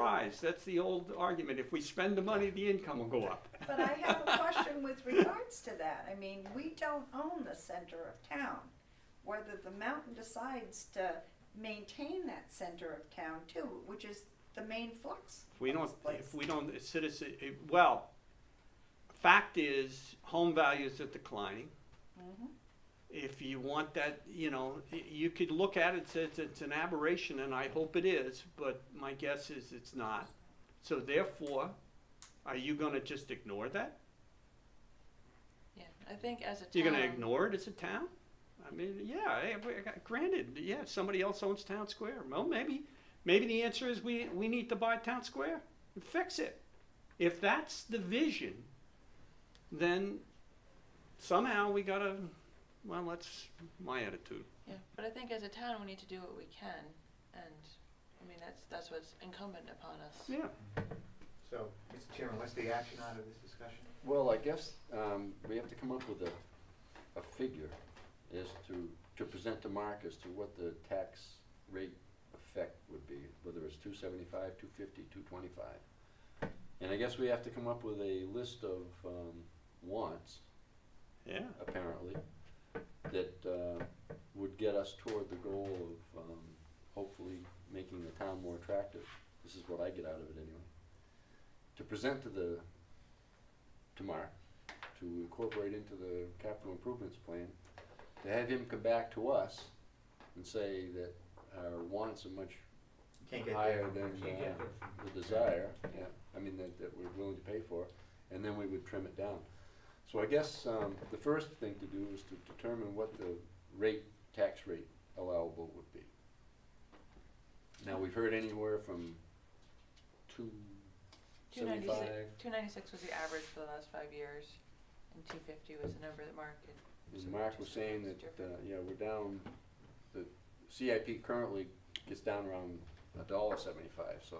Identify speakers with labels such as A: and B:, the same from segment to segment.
A: rise. That's the old argument. If we spend the money, the income will go up.
B: But I have a question with regards to that. I mean, we don't own the center of town. Whether the mountain decides to maintain that center of town too, which is the main flux.
A: If we
B: of
A: don't,
B: this place.
A: if we don't, it's citizen, it- well, fact is, home values are declining.
B: Mhm.
A: If you want that, you know, y- you could look at it, say it's, it's an aberration, and I hope it is, but my guess is it's not. So therefore, are you gonna just ignore that?
C: Yeah, I think as a town.
A: You're gonna ignore it as a town? I mean, yeah, eh, we- granted, yeah, if somebody else owns town square, well, maybe, maybe the answer is we, we need to buy town square and fix it. If that's the vision, then somehow we gotta, well, that's my attitude.
C: Yeah, but I think as a town, we need to do what we can, and, I mean, that's, that's what's incumbent upon us.
A: Yeah,
D: So, Mr. Chairman, what's the action out of this discussion?
E: Well, I guess um, we have to come up with a, a figure as to, to present to Mark as to what the tax rate effect would be, whether it's two seventy-five, two fifty, two twenty-five. And I guess we have to come up with a list of um, wants,
A: yeah,
E: apparently, that uh, would get us toward the goal of um, hopefully making the town more attractive. This is what I get out of it anyway. To present to the, to Mark, to incorporate into the capital improvements plan, to have him come back to us and say that our wants are much
D: You Can't get there.
E: higher than
D: Can't get there.
E: uh, the desire, yeah, I mean, that, that we're willing to pay for, and then we would trim it down. So I guess, um, the first thing to do is to determine what the rate, tax rate allowable would be. Now, we've heard anywhere from two
C: Two ninety-six,
E: seventy-five
C: two ninety-six was the average for the last five years, and two fifty was the number that Mark had.
E: And Mark was saying that, uh, yeah, we're down, the CIP currently gets down around a dollar seventy-five, so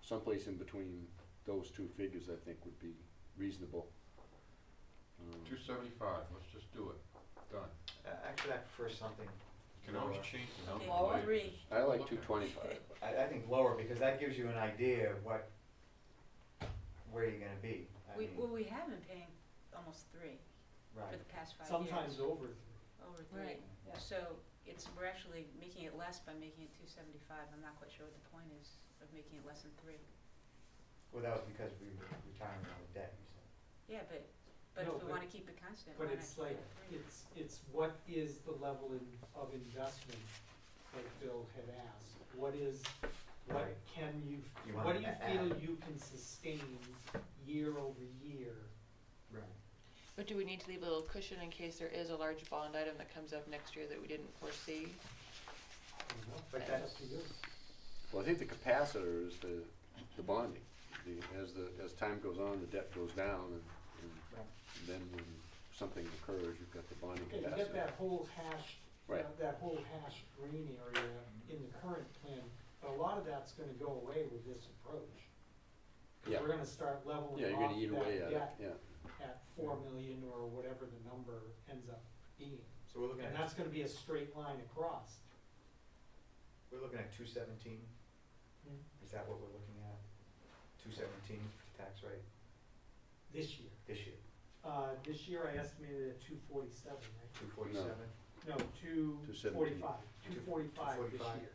E: someplace in between those two figures, I think, would be reasonable. Um,
F: Two seventy-five, let's just do it, done.
D: Uh, Actually, I prefer something.
F: You Can always
D: lower.
F: change the number.
G: Lower.
F: later.
G: Agree.
E: I like two twenty-five.
D: I, I think lower, because that gives you an idea of what, where you're gonna be. I
G: We,
D: mean,
G: well, we have been paying almost three for
D: Right.
G: the past five years.
H: Sometimes over.
G: Over three.
C: Right,
G: So it's, we're actually making it less by making it two seventy-five. I'm not quite sure what the point is of making it less than three.
D: Well, that was because we were retiring all the debt, you said.
G: Yeah, but, but
H: No,
G: if we
H: but-
G: wanna keep it constant, why
H: But
G: not
H: it's
G: keep
H: like,
G: it at three?
H: it's, it's what is the level in, of investment that Bill had asked? What is, what
D: Right.
H: can you,
D: You
H: what
D: wanna
H: do you
D: a-
H: feel
D: add.
H: you can sustain year over year?
D: Right.
C: but do we need to leave a little cushion in case there is a large bond item that comes up next year that we didn't foresee?
D: But
H: It's
D: that's,
H: up to you.
E: Well, I think the capacitor is the, the bonding. The, as the, as time goes on, the debt goes down, and,
D: Right.
E: and then when something occurs, you've got the bonding
H: Okay,
E: capacity.
H: you get that whole hash, uh,
E: Right.
H: that- that whole hash green area in the current plan, but a lot of that's gonna go away with this approach. we
E: Yeah.
H: we're gonna start leveling
E: Yeah, you're
H: off
E: gonna eat away
H: that
E: at it,
H: debt
E: yeah.
H: at four million or whatever the number ends up being.
D: so we're looking
H: And
D: at,
H: that's gonna be a straight line across.
D: we're looking at two seventeen, is that what we're looking at? Two seventeen tax rate
H: This year.
D: this year,
H: Uh, this year I estimated at two forty-seven, right?
D: two forty-seven?
H: No, two
E: 217.
H: forty-five, two forty-five this
D: 245.
H: year.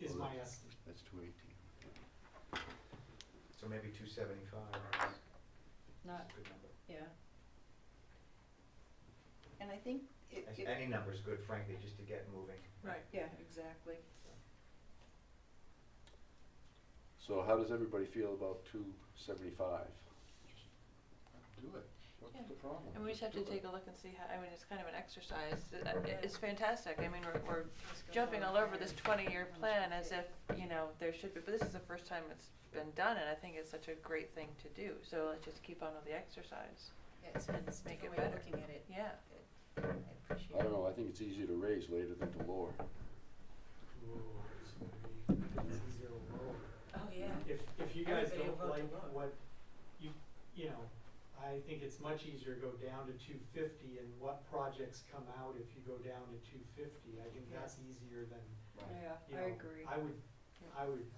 H: Is
E: Well,
H: my estimate.
E: That's two eighteen.
D: So maybe two seventy-five is
G: Not,
D: a good number.
G: yeah.
B: And I think it,
D: As-
B: it,
D: Any number's good, frankly, just to get moving.
G: Right.
B: yeah, exactly.
E: So how does everybody feel about two seventy-five?
F: Do it, what's
C: Yeah.
F: the problem?
C: And we just have to
F: Just do it.
C: take a look and see how, I mean, it's kind of an exercise, It- it- it's fantastic, I mean, we're, we're
G: Let's go
C: jumping
G: lower
C: all over this
G: higher.
C: twenty-year
G: Let's
C: plan
G: keep
C: as
G: it.
C: if, you know, there should be, but this is the first time it's been done, and I think it's such a great thing to do, so let's just keep on with the exercise,
G: Yeah, it's, it's a
C: make it
G: different way of
C: better.
G: looking at it.
C: yeah.
G: I appreciate it.
E: I don't know, I think it's easier to raise later than to lower.
H: It's easier to roll.
G: Oh, yeah.
H: If, if you guys
G: Everybody will
H: don't
G: vote to
H: like
G: vote.
H: what, you, you know, I think it's much easier to go down to two fifty and what projects come out if you go down to two fifty. I think
G: Yeah.
H: that's easier than,
B: Yeah,
H: you
B: I
H: know,
B: agree.
H: I would, I would